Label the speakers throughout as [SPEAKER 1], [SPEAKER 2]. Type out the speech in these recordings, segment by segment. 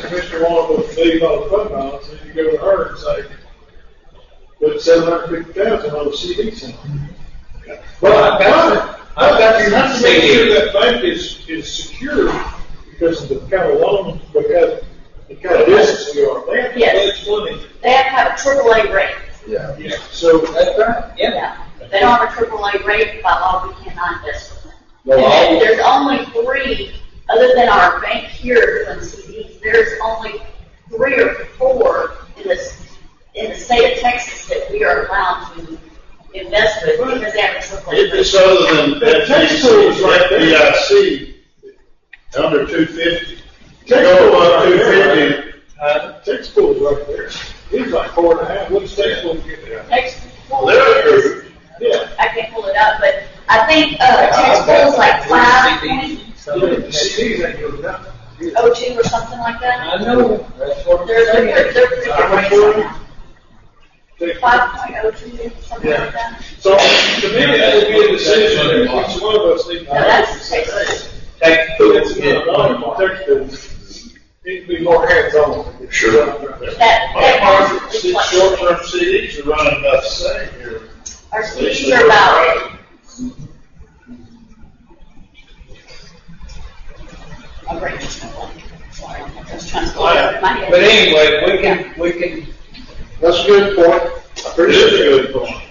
[SPEAKER 1] Commissioner Walker with a million dollar fund balance, and you go to her and say, put seven hundred fifty thousand on the CD center. Well, I got it. I got you. Have to make sure that bank is, is secure because of the kind of loan, because the kind of business we are. They have to
[SPEAKER 2] Yes.
[SPEAKER 1] pledge money.
[SPEAKER 2] They have to have a AAA rate.
[SPEAKER 3] Yeah.
[SPEAKER 1] Yeah, So,
[SPEAKER 3] That's right, yeah.
[SPEAKER 2] Yeah. If They don't have a AAA rate, by law, we cannot invest with them.
[SPEAKER 3] Well,
[SPEAKER 2] And
[SPEAKER 3] all-
[SPEAKER 2] then there's only three, other than our bank here doing CDs, there's only three or four in this, in the state of Texas that we are allowed to invest with because they have a AAA
[SPEAKER 4] If
[SPEAKER 2] rate.
[SPEAKER 4] it's other than
[SPEAKER 1] That tax tool is right there.
[SPEAKER 4] FDIC, under two fifty.
[SPEAKER 1] Tax
[SPEAKER 4] Go
[SPEAKER 1] tool
[SPEAKER 4] up
[SPEAKER 1] right
[SPEAKER 4] two
[SPEAKER 1] there.
[SPEAKER 4] fifty,
[SPEAKER 1] uh, Tech school's right there. He's like four and a half. What's tech school get there?
[SPEAKER 2] Texas, well,
[SPEAKER 4] they're
[SPEAKER 2] it is-
[SPEAKER 4] approved.
[SPEAKER 1] Yeah.
[SPEAKER 2] I can't pull it up, but I think, uh, Texas is like five point
[SPEAKER 1] The CDs ain't doing nothing.
[SPEAKER 2] oh two or something like that.
[SPEAKER 3] I know, that's what I'm
[SPEAKER 2] There's a, there's
[SPEAKER 3] saying.
[SPEAKER 2] a different rates on that.
[SPEAKER 1] Tech-
[SPEAKER 2] Five point oh two, something like that.
[SPEAKER 1] So, to me, that would be a decision that each one of us need to
[SPEAKER 2] No, that's Texas.
[SPEAKER 1] Tech schools. Tech schools. Need to be more hands-on. Sure.
[SPEAKER 2] That,
[SPEAKER 4] My
[SPEAKER 2] that
[SPEAKER 4] market,
[SPEAKER 2] is
[SPEAKER 4] see,
[SPEAKER 2] like,
[SPEAKER 4] short-term CDs are running about the same here.
[SPEAKER 2] our CDs are about, my brain just went blank. Sorry, I'm just trying to pull it up in my
[SPEAKER 3] But
[SPEAKER 2] head.
[SPEAKER 3] anyway, we can, we can,
[SPEAKER 1] That's a good point. I
[SPEAKER 4] It is a
[SPEAKER 1] appreciate it.
[SPEAKER 4] good point.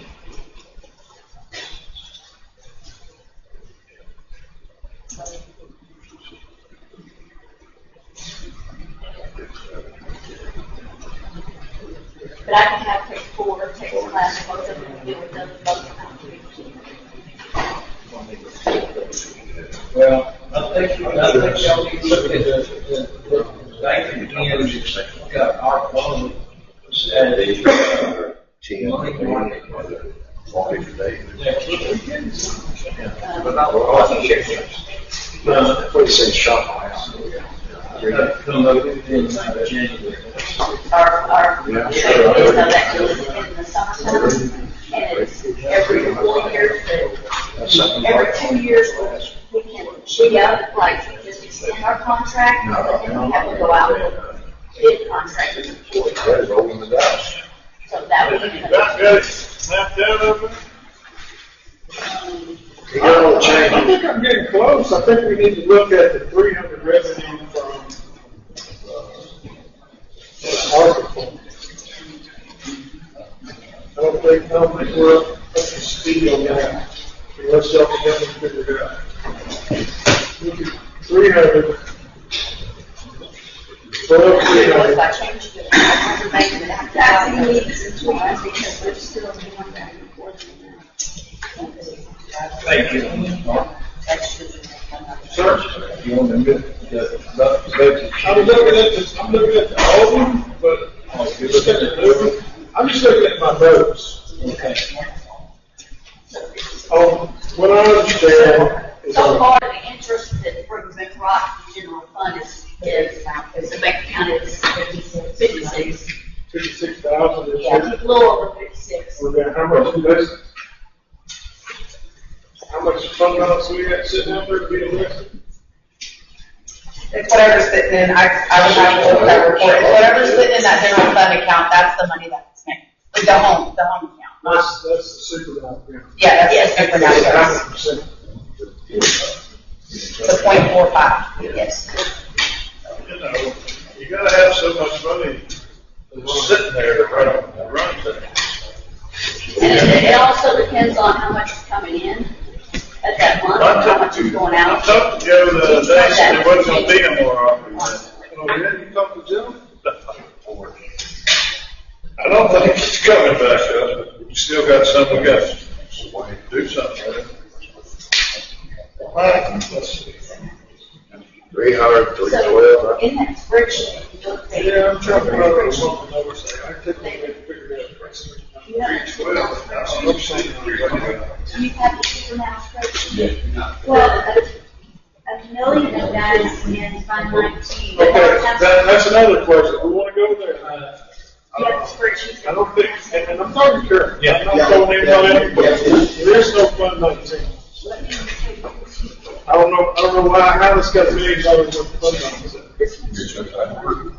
[SPEAKER 2] But I can have take four, take class, both of them, deal with them, both of them.
[SPEAKER 3] well, I think, I think y'all need to look at the, the, the banking again, got our loan.
[SPEAKER 5] Saturday, uh, ten,
[SPEAKER 3] Money.
[SPEAKER 5] one, forty today.
[SPEAKER 2] Um,
[SPEAKER 5] But not, oh, I think it's-
[SPEAKER 3] Uh,
[SPEAKER 5] what do you say, shop my house?
[SPEAKER 3] promoted in uh, January.
[SPEAKER 2] our, our, you know,
[SPEAKER 5] Yeah,
[SPEAKER 2] we
[SPEAKER 5] sure.
[SPEAKER 2] have that goes in the summertime, and it's every four years,
[SPEAKER 5] That's something.
[SPEAKER 2] every two years, we we can, we have, like, just extend our contract,
[SPEAKER 5] No,
[SPEAKER 2] and then we have to go out and bid contract with the board.
[SPEAKER 5] That is rolling the dice.
[SPEAKER 2] so that would be.
[SPEAKER 1] You got that mapped out over there?
[SPEAKER 5] You got all the
[SPEAKER 1] I
[SPEAKER 5] changes.
[SPEAKER 1] think I'm getting close. I think we need to look at the three hundred revenue from, uh, article. I don't think, I don't think we're up up to speed on that. Unless y'all can help me figure it out. Three hundred. Well, three
[SPEAKER 2] What if
[SPEAKER 1] hundred.
[SPEAKER 2] I change the information that I have to add in these and twice, because we're still doing that and forth.
[SPEAKER 3] Thank you.
[SPEAKER 2] That's just-
[SPEAKER 3] You want to get the, the budget.
[SPEAKER 1] I'm looking at this, I'm looking at the old one, but I'm looking at the new one. I'm just looking at my notes.
[SPEAKER 3] Okay.
[SPEAKER 1] Um, what I understand is,
[SPEAKER 2] So
[SPEAKER 1] uh,
[SPEAKER 2] far, the interest that brings in Rock General Fund is, is, is the bank account is fifty-six.
[SPEAKER 1] fifty-six thousand this
[SPEAKER 2] Yeah,
[SPEAKER 1] year,
[SPEAKER 2] a little over fifty-six.
[SPEAKER 1] we're gonna, how much invest? How much fund balance we got sitting out there to be invested?
[SPEAKER 6] It's whatever's sitting in, I, I would have to look at that report, it's whatever's sitting in that general fund account, that's the money that's in, like the home, the home account, not,
[SPEAKER 1] That's, that's the super down payment.
[SPEAKER 6] yeah, that's the
[SPEAKER 1] Hundred
[SPEAKER 6] supernatural,
[SPEAKER 1] percent.
[SPEAKER 6] the point four five.
[SPEAKER 2] Yes.
[SPEAKER 4] You know, you gotta have so much money sitting there to run, to run things.
[SPEAKER 2] And it, it also depends on how much is coming in at that month, and how much is going
[SPEAKER 4] I
[SPEAKER 2] out.
[SPEAKER 4] talked to Joe the other day, he said there wasn't gonna be no more offers.
[SPEAKER 1] Oh, yeah, you talked to Joe?
[SPEAKER 4] I don't think it's coming back up, but you still got some we got. to Do something with it.
[SPEAKER 5] Three hundred, three
[SPEAKER 2] So,
[SPEAKER 5] twelve.
[SPEAKER 2] in that spreadsheet, you look at.
[SPEAKER 1] Yeah, I'm trying to remember what something I was saying, I couldn't even figure it out.
[SPEAKER 2] You know,
[SPEAKER 4] Well, I don't see it.
[SPEAKER 2] you have the supernatural spreadsheet. Well, a, a million of that is in Fund nineteen.
[SPEAKER 1] Okay, that, that's another question, we wanna go there.
[SPEAKER 2] You have the spreadsheet.
[SPEAKER 1] I don't think, and and I'm talking to,
[SPEAKER 3] Yeah.
[SPEAKER 1] I'm not telling anybody, but there is no fund nineteen.
[SPEAKER 2] Let me just take this.
[SPEAKER 1] I don't know, I don't know why, how this got millions dollars worth of fund balance.
[SPEAKER 2] This one's-